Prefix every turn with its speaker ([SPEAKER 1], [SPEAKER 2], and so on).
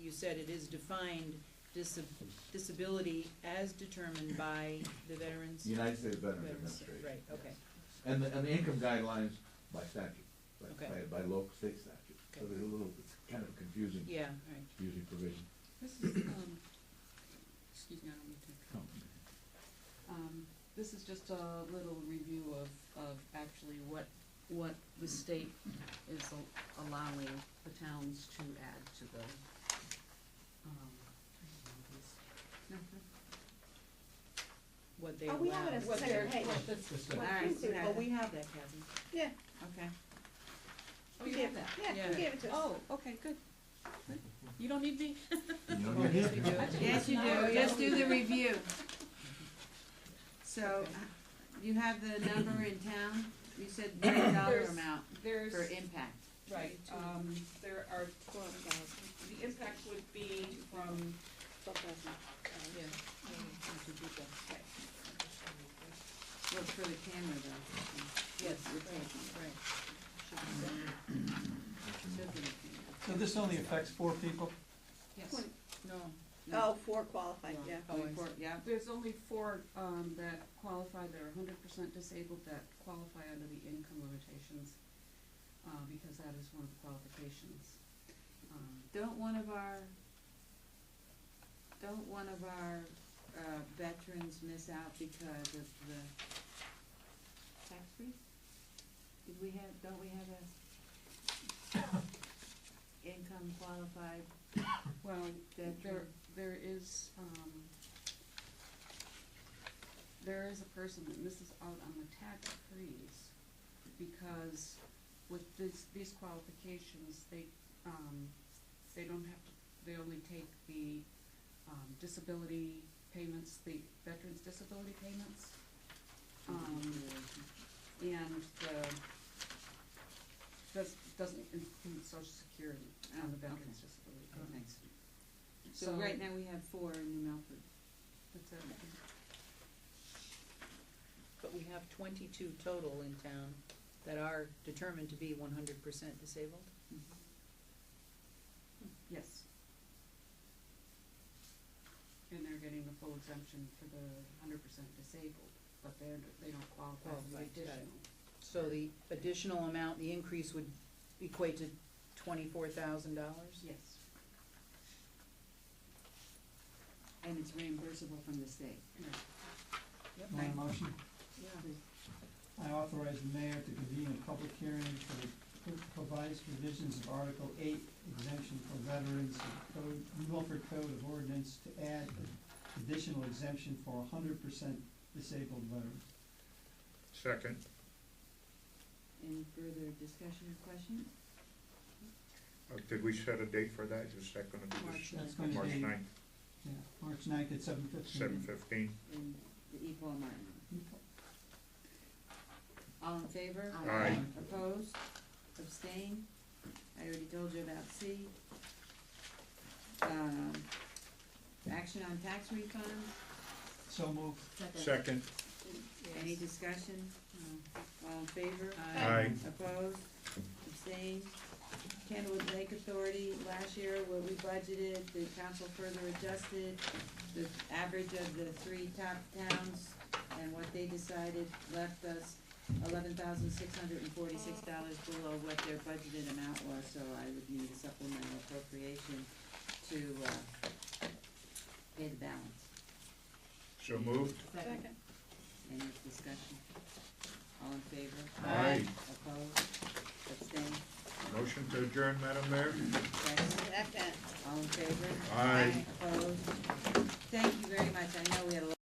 [SPEAKER 1] you said, it is defined disab- disability as determined by the Veterans.
[SPEAKER 2] The United States Veterans
[SPEAKER 1] Veterans-
[SPEAKER 2] Administration.
[SPEAKER 1] Right, okay,
[SPEAKER 2] And the, and the income guidelines by statute, by,
[SPEAKER 1] Okay.
[SPEAKER 2] by, by local state statute. So
[SPEAKER 1] Okay.
[SPEAKER 2] they're a little, it's kind of a confusing,
[SPEAKER 1] yeah, all right.
[SPEAKER 2] confusing provision.
[SPEAKER 3] This is, um, excuse me, I don't mean to, um, this is just a little review of, of actually what, what the state is al- allowing the towns to add to the, um, I don't know,
[SPEAKER 1] What they
[SPEAKER 4] Oh,
[SPEAKER 1] allow.
[SPEAKER 4] we have it as a
[SPEAKER 1] what they're-
[SPEAKER 4] separate page.
[SPEAKER 1] what the-
[SPEAKER 4] Well,
[SPEAKER 3] All right.
[SPEAKER 4] please do
[SPEAKER 1] Oh,
[SPEAKER 4] that.
[SPEAKER 1] we have that, Kathy.
[SPEAKER 4] Yeah.
[SPEAKER 1] Okay.
[SPEAKER 3] this. Oh, you have that?
[SPEAKER 4] Yeah,
[SPEAKER 1] Yeah.
[SPEAKER 4] you gave it to us.
[SPEAKER 3] Oh, okay, good. Good. You don't need me?
[SPEAKER 2] You know,
[SPEAKER 1] Well,
[SPEAKER 2] you're
[SPEAKER 1] yes, we do.
[SPEAKER 2] here.
[SPEAKER 5] Yes, you
[SPEAKER 3] No,
[SPEAKER 5] do,
[SPEAKER 3] we
[SPEAKER 5] just
[SPEAKER 3] don't.
[SPEAKER 5] do the review. So,
[SPEAKER 1] Okay.
[SPEAKER 5] uh, you have the number in town, you said nine dollar
[SPEAKER 3] There's-
[SPEAKER 5] amount
[SPEAKER 3] There's.
[SPEAKER 5] for impact.
[SPEAKER 3] Right,
[SPEAKER 1] Oh,
[SPEAKER 3] um, there are, the impact would be from, yeah.
[SPEAKER 5] Look for the camera though.
[SPEAKER 1] Yes,
[SPEAKER 5] We're taking
[SPEAKER 1] right.
[SPEAKER 5] it. Should be the camera.
[SPEAKER 6] So this only affects four people?
[SPEAKER 3] Yes.
[SPEAKER 1] No.
[SPEAKER 4] Oh, four qualified, yeah.
[SPEAKER 1] Oh, I
[SPEAKER 5] Four, yeah,
[SPEAKER 3] There's only four, um, that qualify, that are hundred percent disabled, that qualify under the income limitations, uh, because that is one of the qualifications. Um,
[SPEAKER 5] don't one of our,
[SPEAKER 1] uh,
[SPEAKER 5] don't one of our, uh, veterans miss out because of the tax freeze? Did we have, don't we have a income qualified
[SPEAKER 3] Well, there,
[SPEAKER 5] veteran?
[SPEAKER 3] there is, um, there is a person that misses out on the tax freeze because with this, these qualifications, they, um, they don't have to, they only take the, um, disability payments, the veterans' disability payments. Um, and the, does, doesn't include social security on the
[SPEAKER 5] Oh, okay.
[SPEAKER 3] veterans' disability
[SPEAKER 5] Oh,
[SPEAKER 3] payments.
[SPEAKER 5] nice. So right now we have four in New Milford.
[SPEAKER 3] That's it.
[SPEAKER 1] But we have twenty-two total in town that are determined to be one hundred percent disabled.
[SPEAKER 3] Yes. And they're getting the full exemption for the hundred percent disabled, but they're, they don't qualify for the
[SPEAKER 1] Qualified, got it.
[SPEAKER 3] additional.
[SPEAKER 1] So the additional amount, the increase would equate to twenty-four thousand dollars?
[SPEAKER 3] Yes,
[SPEAKER 5] And it's reimbursable from the state.
[SPEAKER 3] right.
[SPEAKER 6] My motion,
[SPEAKER 1] Yeah.
[SPEAKER 6] I authorize the mayor to convene a public hearing for the proposed revisions of Article eight exemption for veterans of code, New Milford Code of Ordinance to add additional exemption for hundred percent disabled veterans.
[SPEAKER 7] Second,
[SPEAKER 5] Any further discussion or question?
[SPEAKER 7] Uh, did we set a date for that? Is that gonna be
[SPEAKER 5] March
[SPEAKER 7] this,
[SPEAKER 6] That's going to
[SPEAKER 7] March
[SPEAKER 6] be,
[SPEAKER 7] ninth,
[SPEAKER 6] yeah, March ninth at seven fifteen.
[SPEAKER 7] seven fifteen?
[SPEAKER 5] in the E equal amount. All in favor?
[SPEAKER 7] Aye. Aye.
[SPEAKER 5] Opposed? Abstain? I already told you about C. Um, action on tax refunds,
[SPEAKER 6] So moved.
[SPEAKER 7] Second,
[SPEAKER 5] any discussion? No. All in favor?
[SPEAKER 7] aye,
[SPEAKER 5] Opposed? Abstained? Candlewood Lake Authority, last year what we budgeted, the council further adjusted the average of the three top towns and what they decided left us eleven thousand six hundred and forty-six dollars below what their budgeted amount was, so I would need a supplemental appropriation to, uh, pay the balance.
[SPEAKER 7] so moved,
[SPEAKER 4] Second.
[SPEAKER 5] Any discussion? All in favor?
[SPEAKER 7] Aye.
[SPEAKER 5] Opposed? Abstained?
[SPEAKER 7] motion to adjourn, Madam Mayor?
[SPEAKER 5] Abstained?
[SPEAKER 4] Second.
[SPEAKER 5] All in favor?
[SPEAKER 7] Aye.
[SPEAKER 5] Opposed? Thank you very much, I know we had a lot